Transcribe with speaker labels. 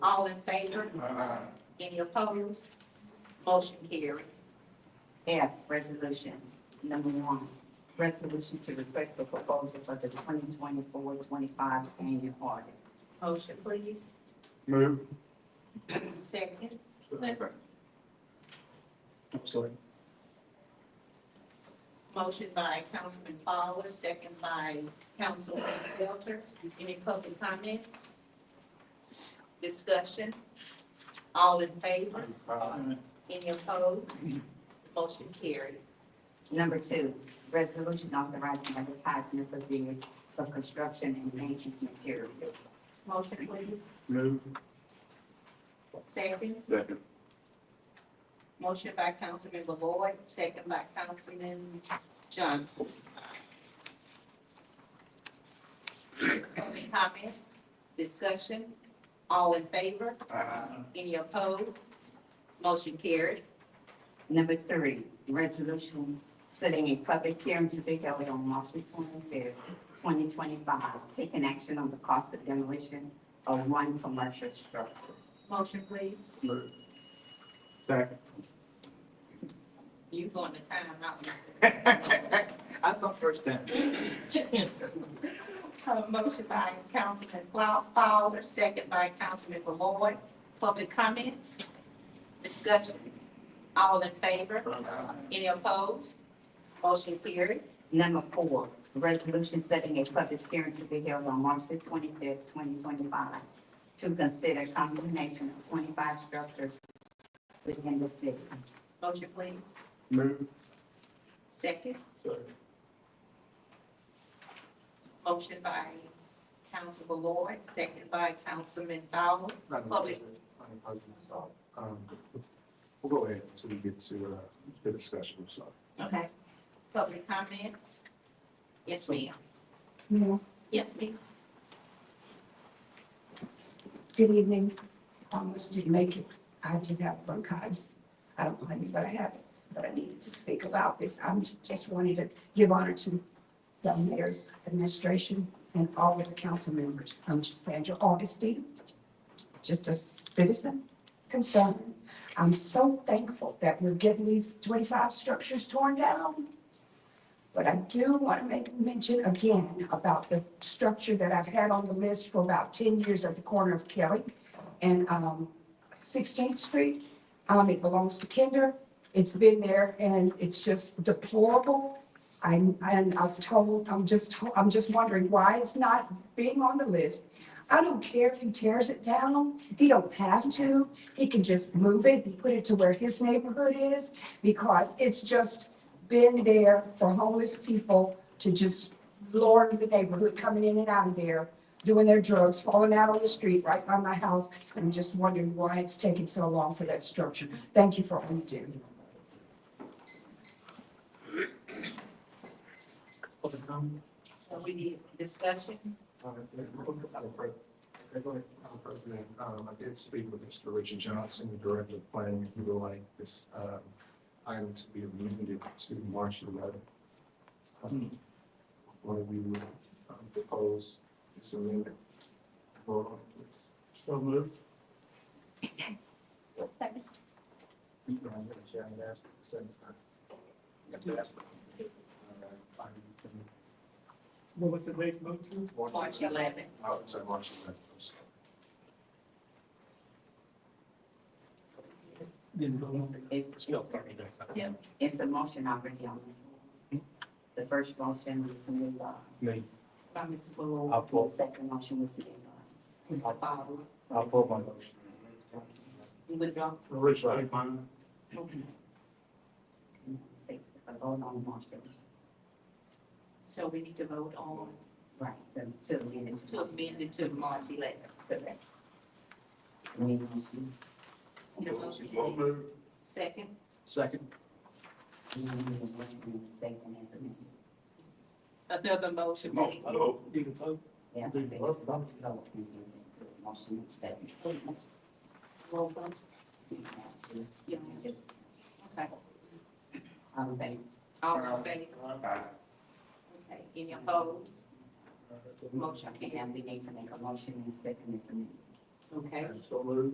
Speaker 1: All in favor?
Speaker 2: Aye.
Speaker 1: Any opposed? Motion carried. F, resolution number one, resolution to request a proposal for the 2024-25 annual audit. Motion, please.
Speaker 2: Move.
Speaker 1: Second.
Speaker 2: I'm sorry.
Speaker 1: Motion by Councilman Fowler, second by Councilman Felter. Any public comments? Discussion? All in favor?
Speaker 2: Aye.
Speaker 1: Any opposed? Motion carried. Number two, resolution authorizing advertisement for bid for construction and maintenance materials. Motion, please.
Speaker 2: Move.
Speaker 1: Seconds.
Speaker 2: Second.
Speaker 1: Motion by Councilman Lloyd, second by Councilman Johnson. Any comments, discussion? All in favor?
Speaker 2: Aye.
Speaker 1: Any opposed? Motion carried. Number three, resolution setting a public hearing to be held on March twenty-fifth, twenty twenty-five, taking action on the cost of demolition of one commercial structure. Motion, please.
Speaker 2: Move. Second.
Speaker 1: You going to time out?
Speaker 2: I thought first time.
Speaker 1: Uh, Motion by Councilman Flaw- Fowler, second by Councilman Lloyd. Public comments? Discussion? All in favor?
Speaker 2: Aye.
Speaker 1: Any opposed? Motion carried.
Speaker 3: Number four, resolution setting a public hearing to be held on March the twenty-fifth, twenty twenty-five to consider condemnation of twenty-five structures within the city.
Speaker 1: Motion, please.
Speaker 2: Move.
Speaker 1: Second.
Speaker 2: Second.
Speaker 1: Motion by Councilman Lloyd, second by Councilman Fowler. Public.
Speaker 2: Um, We'll go ahead until we get to uh, the discussion, I'm sorry.
Speaker 1: Okay. Public comments? Yes, ma'am.
Speaker 4: Yeah,
Speaker 1: Yes, please.
Speaker 4: good evening. Promise to make it. I did have bronchitis. I don't blame you, but I have it. But I needed to speak about this. I'm j- just wanted to give honor to the mayor's administration and all of the council members. I'm just Sandra Augustine, just a citizen concerned. I'm so thankful that we're getting these twenty-five structures torn down. But I do want to make mention again about the structure that I've had on the list for about ten years at the corner of Kelly and um, Sixteenth Street. Um, it belongs to Kinder. It's been there and it's just deplorable. I, and I've told, I'm just, to- I'm just wondering why it's not being on the list. I don't care if he tears it down. He don't have to. He can just move it and put it to where his neighborhood is because it's just been there for homeless people to just lord the neighborhood, coming in and out of there, doing their drugs, falling out on the street right by my house. I'm just wondering why it's taking so long for that structure. Thank you for all you do.
Speaker 2: Public comment?
Speaker 1: So we need discussion.
Speaker 2: Uh, Madam Pre- Madam President, um, I did speak with Mr. Richard Johnson, the Director of Planning, if you would like this um, item to be amended to March 11th. Um, Where we would um, propose this amendment. Vote on it, please. So moved. You don't have to ask, you have to ask. Uh, I'm-
Speaker 5: What was the date moved to?
Speaker 1: March 11th.
Speaker 2: I would say March 11th. I'm sorry.
Speaker 5: Didn't go on.
Speaker 3: Is,
Speaker 1: Yeah.
Speaker 3: is the motion already on
Speaker 6: Hmm?
Speaker 3: the floor? The first motion was made by
Speaker 6: Me,
Speaker 1: By Mr. Lloyd.
Speaker 6: I'll
Speaker 3: the
Speaker 6: pull,
Speaker 3: second motion was made by
Speaker 1: Mr. Fowler.
Speaker 6: I'll pull my motion.
Speaker 1: You withdraw?
Speaker 6: Richard,
Speaker 3: Mm-hmm. state, but vote on March the,
Speaker 1: So we need to vote on
Speaker 3: right, the two minutes.
Speaker 1: to amend it to March 11th.
Speaker 3: Correct. Mm,
Speaker 1: Need a motion, please? Second.
Speaker 2: Second.
Speaker 3: mm, mm, Second is amended.
Speaker 1: Another motion, please.
Speaker 5: Did you vote?
Speaker 3: Yeah.
Speaker 2: Do the vote, vote.
Speaker 3: Motion is second.
Speaker 1: Roll call. Yeah, just, okay.
Speaker 3: Um, they
Speaker 1: All in favor? Okay, any opposed?
Speaker 3: motion, and we need to make a motion and second is amended.
Speaker 7: Okay.
Speaker 3: So moved.